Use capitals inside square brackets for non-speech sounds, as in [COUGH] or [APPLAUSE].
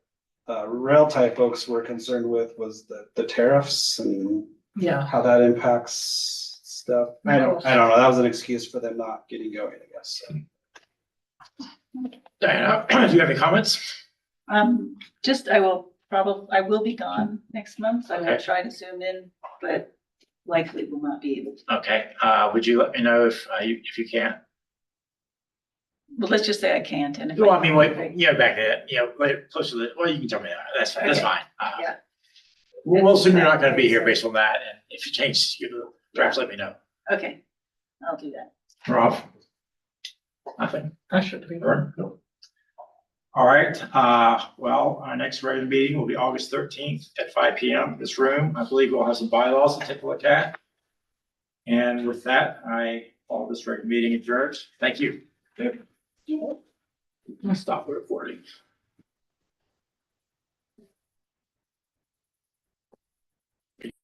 uh, rail type folks were concerned with was the, the tariffs and Yeah, how that impacts stuff. I don't, I don't know. That was an excuse for them not getting going, I guess. so. Diana, [CLEARS THROAT] do you have any comments? Um, just, I will probably, I will be gone next month. I'm gonna Okay. try to zoom in, but likely will not be able to. Okay, uh, would you let me know if, uh, you, if you can? Well, let's just say I can't and if. Well, I mean, okay. wait, you know, back there, you know, wait, close to the, well, you can tell me that, that's, that's Okay. fine. Uh, Yeah. We'll, we'll assume you're not gonna be here based on that, and if you change, you perhaps let me know. Okay, I'll do that. Rob? Nothing? That should be. All right, uh, well, our next regular meeting will be August thirteenth at five P M, this room. I believe we'll have some bylaws to take a look at. And with that, I, call this regular meeting adjourned. Thank you. Yep. Stop recording.